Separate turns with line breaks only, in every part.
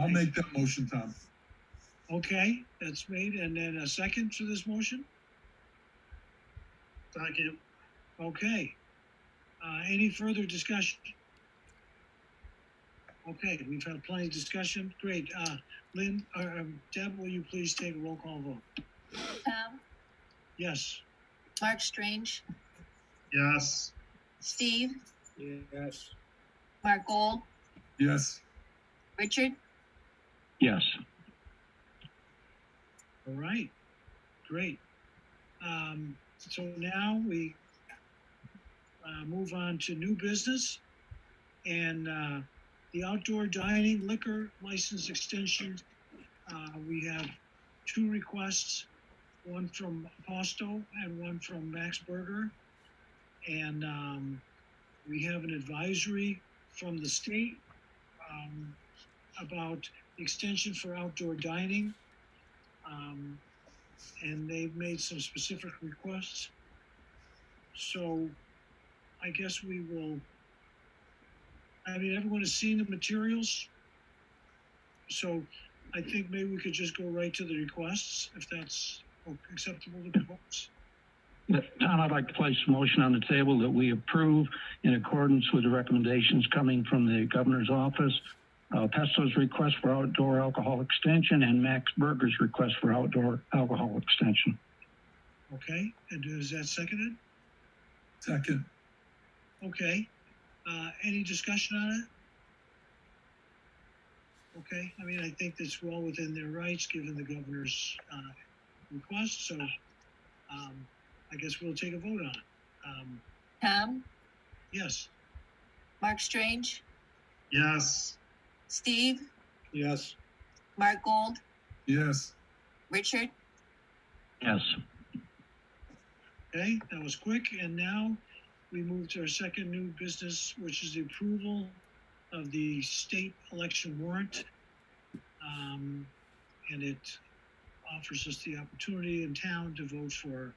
I'll make that motion, Tom.
Okay, that's made, and then a second to this motion? Second. Okay. Uh, any further discussion? Okay, we've had plenty of discussion, great, uh, Lynn, uh, um, Deb, will you please take a roll call vote?
Tom,
Yes.
Mark Strange,
Yes.
Steve,
Yes.
Mark Gold,
Yes,
Richard,
Yes,
All right, great. Um, so now we uh, move on to new business and uh, the outdoor dining liquor license extension. Uh, we have two requests, one from Posto and one from Max Berger. And um, we have an advisory from the state um, about extension for outdoor dining. Um, and they've made some specific requests. So I guess we will, I mean, everyone has seen the materials. So I think maybe we could just go right to the requests if that's acceptable to the folks.
But, Tom, I'd like to place a motion on the table that we approve in accordance with the recommendations coming from the governor's office. Uh, Pesto's request for outdoor alcohol extension and Max Berger's request for outdoor alcohol extension.
Okay, and is that seconded?
second,
Okay, uh, any discussion on it? Okay, I mean, I think that's well within their rights, given the governor's, uh, request, so, um, I guess we'll take a vote on it. Um,
Tom,
yes?
Mark Strange,
Yes.
Steve,
Yes.
Mark Gold,
yes,
Richard,
Yes,
Okay, that was quick, and now we move to our second new business, which is the approval of the state election warrant. Um, and it offers us the opportunity in town to vote for,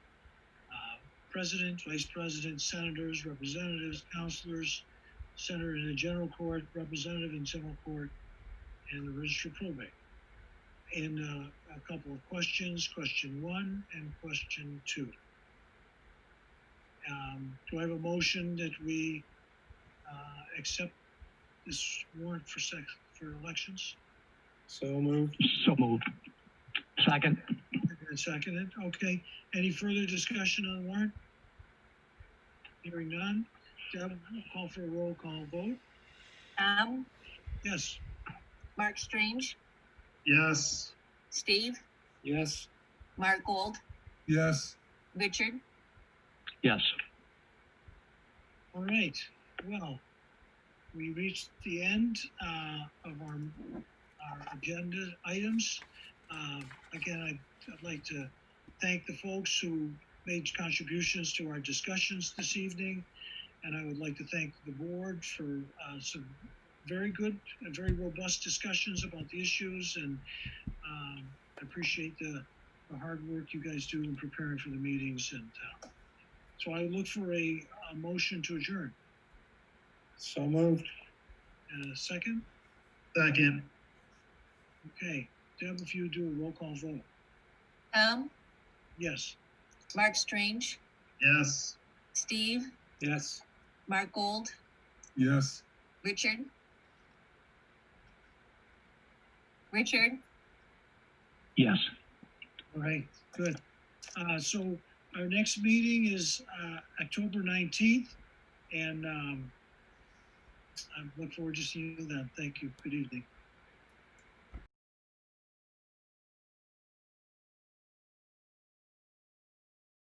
uh, president, vice president, senators, representatives, counselors, senator in the general court, representative in general court, and the registered probate. And, uh, a couple of questions, question one and question two. Um, do I have a motion that we, uh, accept this warrant for sec, for elections?
So moved.
so moved. Second,
And seconded, okay. Any further discussion on the warrant? Hearing none. Deb, I'll call for a roll call vote.
Tom,
Yes.
Mark Strange,
Yes.
Steve,
Yes.
Mark Gold,
yes,
Richard,
yes.
All right, well, we reached the end, uh, of our, our agenda items. Uh, again, I'd, I'd like to thank the folks who made contributions to our discussions this evening. And I would like to thank the board for, uh, some very good and very robust discussions about the issues and, um, I appreciate the, the hard work you guys do in preparing for the meetings and, uh, so I look for a, a motion to adjourn.
So moved.
And a second?
Second.
Okay, Deb, if you do a roll call vote.
Tom,
Yes.
Mark Strange,
Yes.
Steve,
Yes.
Mark Gold,
yes.
Richard. Richard,
Yes.
All right, good. Uh, so our next meeting is, uh, October nineteenth, and, um, I look forward to seeing you then. Thank you. Good evening.